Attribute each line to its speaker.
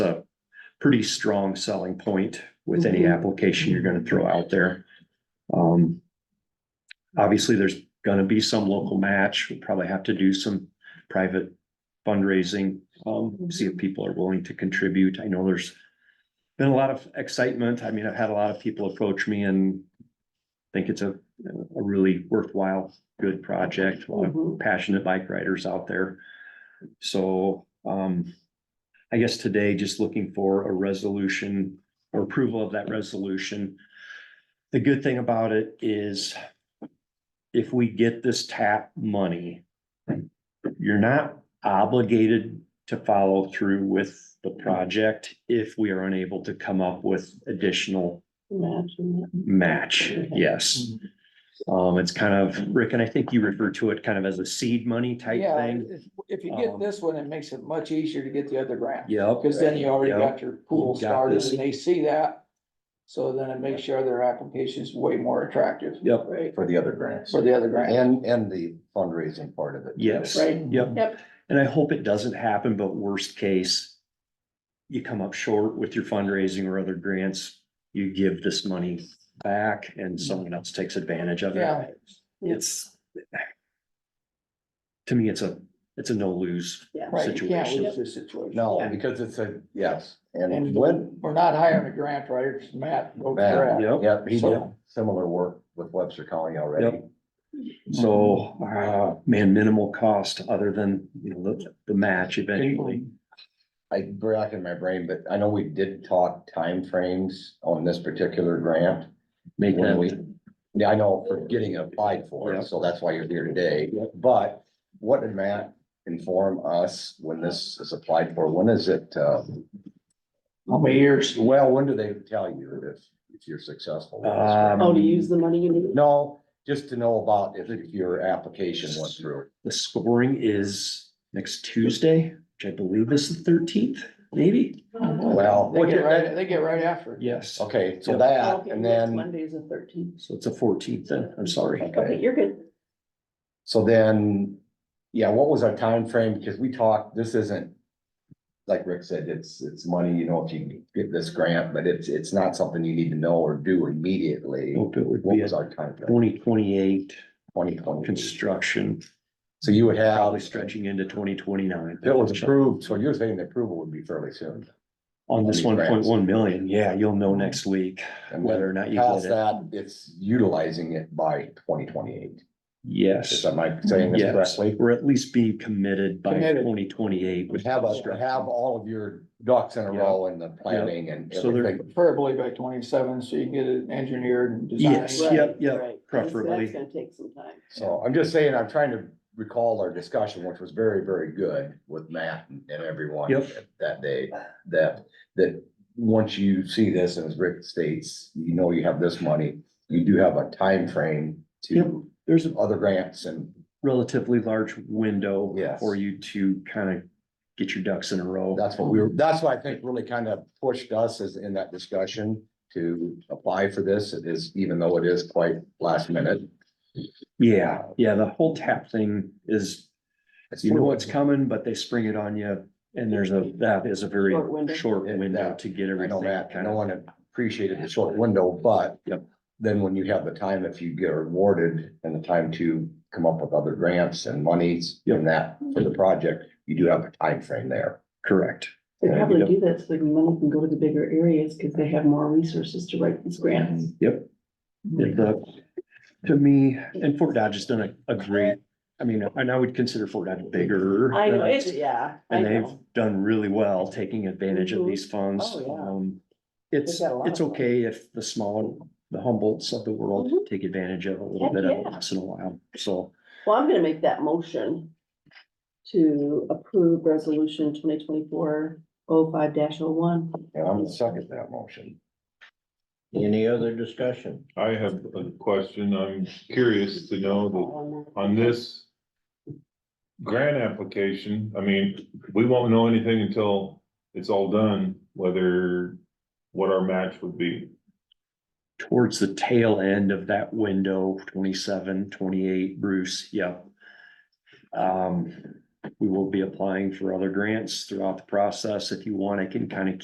Speaker 1: pretty strong selling point with any
Speaker 2: Mhm.
Speaker 1: application you're gonna throw out there. Um, obviously, there's gonna be some local match. We'll probably have to do some private fundraising. Um, see if people are willing to contribute. I know there's been a lot of excitement. I mean, I've had a lot of people approach me and think it's a, a really worthwhile, good project. A lot of
Speaker 2: Mhm.
Speaker 1: passionate bike riders out there. So, um, I guess today just looking for a resolution or approval of that resolution. The good thing about it is if we get this tap money, you're not obligated to follow through with the project if we are unable to come up with additional
Speaker 2: Imagine that.
Speaker 1: match, yes.
Speaker 3: Mm-hmm.
Speaker 1: Um, it's kind of, Rick, and I think you refer to it kind of as a seed money type
Speaker 3: Yeah,
Speaker 1: thing.
Speaker 3: if- If you
Speaker 1: Um,
Speaker 3: get this one, it makes it much easier to get the other grant,
Speaker 1: Yep,
Speaker 3: because then you already
Speaker 1: Yeah.
Speaker 3: got your pool
Speaker 1: You got
Speaker 3: started
Speaker 1: this.
Speaker 3: and they see that. So then it makes sure their application is way more attractive
Speaker 1: yep,
Speaker 2: Right,
Speaker 4: for the other grants.
Speaker 3: for the other grant.
Speaker 4: And, and the fundraising part of it. too.
Speaker 1: yes,
Speaker 3: Right.
Speaker 1: yep.
Speaker 2: Yep.
Speaker 1: And I hope it doesn't happen, but worst case, you come up short with your fundraising or other grants, you give this money back and someone else takes advantage of
Speaker 3: Mm-hmm. Yeah.
Speaker 1: it. It's to me, it's a, it's a no lose.
Speaker 3: Right, you can't
Speaker 1: Situation.
Speaker 3: lose this situation.
Speaker 4: No, because it's a, yes, and
Speaker 3: And
Speaker 4: when,
Speaker 3: We're not hiring a grant writer, it's Matt. wrote the
Speaker 4: Matt,
Speaker 3: grant.
Speaker 1: Yep.
Speaker 4: yeah, he did
Speaker 3: So-
Speaker 4: similar work with Webster County already.
Speaker 1: So, uh, man, minimal cost other than, you know, the, the match eventually.
Speaker 4: I brack in my brain, but I know we did talk timeframes on this particular grant.
Speaker 1: Make
Speaker 4: when we,
Speaker 1: that,
Speaker 4: yeah, I know for getting applied for, it, so that's why you're here today.
Speaker 1: Yeah.
Speaker 4: But what did Matt inform us when this is applied for? When is it, uh,
Speaker 3: How many years?
Speaker 4: well, when do they tell you if, if you're successful? with this
Speaker 1: Um,
Speaker 4: grant?
Speaker 2: Oh, to use the money you need.
Speaker 4: No, just to know about if if your application went through.
Speaker 1: the scoring is next Tuesday, which I believe is the thirteenth, maybe?
Speaker 2: Uh-huh.
Speaker 4: Well,
Speaker 3: They get right, they get right after it.
Speaker 1: Yes.
Speaker 4: okay,
Speaker 1: Yeah.
Speaker 4: so that,
Speaker 2: Oh, Okay,
Speaker 4: and
Speaker 2: next
Speaker 4: then,
Speaker 2: Monday is the thirteenth.
Speaker 1: So it's a fourteenth then, I'm sorry.
Speaker 2: Okay, you're good.
Speaker 4: so then, yeah, what was our time frame? Because we talked, this isn't. Like Rick said, it's, it's money, you know, if you get this grant, but it's, it's not something you need to know or do immediately.
Speaker 1: Hope it would
Speaker 4: What
Speaker 1: be a
Speaker 4: was our timeframe?
Speaker 1: twenty twenty-eight
Speaker 4: Twenty twenty.
Speaker 1: construction,
Speaker 4: So you would have,
Speaker 1: probably
Speaker 4: if
Speaker 1: stretching into twenty twenty-nine.
Speaker 4: it was approved, so you're saying the approval would be fairly soon.
Speaker 1: On this one
Speaker 4: on these
Speaker 1: point
Speaker 4: grants.
Speaker 1: one million, yeah, you'll know next week
Speaker 4: And
Speaker 1: whether
Speaker 4: whether
Speaker 1: or not you
Speaker 4: past
Speaker 1: get it.
Speaker 4: that, it's utilizing it by twenty twenty-eight.
Speaker 1: Yes,
Speaker 4: Is that my saying this
Speaker 1: yes,
Speaker 4: correctly?
Speaker 1: or at least be committed by
Speaker 3: Committed.
Speaker 1: twenty twenty-eight.
Speaker 4: Would have us have all of your ducks in a row in the planning and
Speaker 1: So there-
Speaker 4: everything.
Speaker 3: Preferably by twenty-seven, so you can get it engineered and
Speaker 1: Yes,
Speaker 3: designed.
Speaker 1: yeah.
Speaker 2: Right,
Speaker 1: yep,
Speaker 2: right. That's-
Speaker 1: preferably.
Speaker 2: That's gonna take some time.
Speaker 4: So I'm just saying, I'm trying to recall our discussion, which was very, very good with Matt and and everyone
Speaker 1: Yep.
Speaker 4: that day. That, that once you see this, as Rick states, you know you have this money, you do have a time frame to
Speaker 1: There's a
Speaker 4: other grants and
Speaker 1: relatively large window
Speaker 4: Yes.
Speaker 1: for you to kind of get your ducks in a row.
Speaker 4: that's what we were, that's what I think really kind of pushed us is in that discussion to apply for this. It is, even though it is quite last minute.
Speaker 1: Yeah, yeah, the whole tap thing is,
Speaker 4: it's
Speaker 1: you know
Speaker 4: fluid.
Speaker 1: what's coming, but they spring it on you. And there's a, that is a very
Speaker 2: Short window.
Speaker 1: short
Speaker 4: And
Speaker 1: window
Speaker 4: that-
Speaker 1: to get
Speaker 4: I know
Speaker 1: everything
Speaker 4: Matt,
Speaker 1: kind
Speaker 4: no
Speaker 1: of,
Speaker 4: one appreciated the short window, but.
Speaker 1: Yep.
Speaker 4: Then when you have the time, if you get rewarded and the time to come up with other grants and monies and that for the project, you do have a time frame there.
Speaker 1: correct.
Speaker 2: They
Speaker 1: Yeah, you
Speaker 2: probably
Speaker 1: don't-
Speaker 2: do that so the money can go to the bigger areas because they have more resources to write these grants.
Speaker 1: Yep. Yeah, the- to me, and Fort Dodge has done a, a great, I mean, and I would consider Fort Dodge bigger.
Speaker 2: I know,
Speaker 1: than
Speaker 2: it's,
Speaker 1: us,
Speaker 2: yeah, I
Speaker 1: And they've
Speaker 2: know.
Speaker 1: done really well taking advantage of
Speaker 2: Mhm.
Speaker 1: these funds.
Speaker 2: Oh, yeah.
Speaker 1: Um, It's,
Speaker 2: They've got a lot
Speaker 1: it's
Speaker 2: of them.
Speaker 1: okay if the smaller, the Humboldts of the world
Speaker 2: Mhm.
Speaker 1: take advantage of a little
Speaker 2: Heck,
Speaker 1: bit of it
Speaker 2: yeah.
Speaker 1: once in a while, so.
Speaker 2: Well, I'm gonna make that motion to approve resolution twenty twenty-four oh five dash oh one.
Speaker 4: And I'm gonna second that motion.
Speaker 5: Any other discussion?
Speaker 6: I have a question. I'm curious to know that on this grant application, I mean, we won't know anything until it's all done, whether what our match would be.
Speaker 1: towards the tail end of that window, 27, 28, Bruce, yep. Um, we will be applying for other grants throughout the process. If you want, I can kind of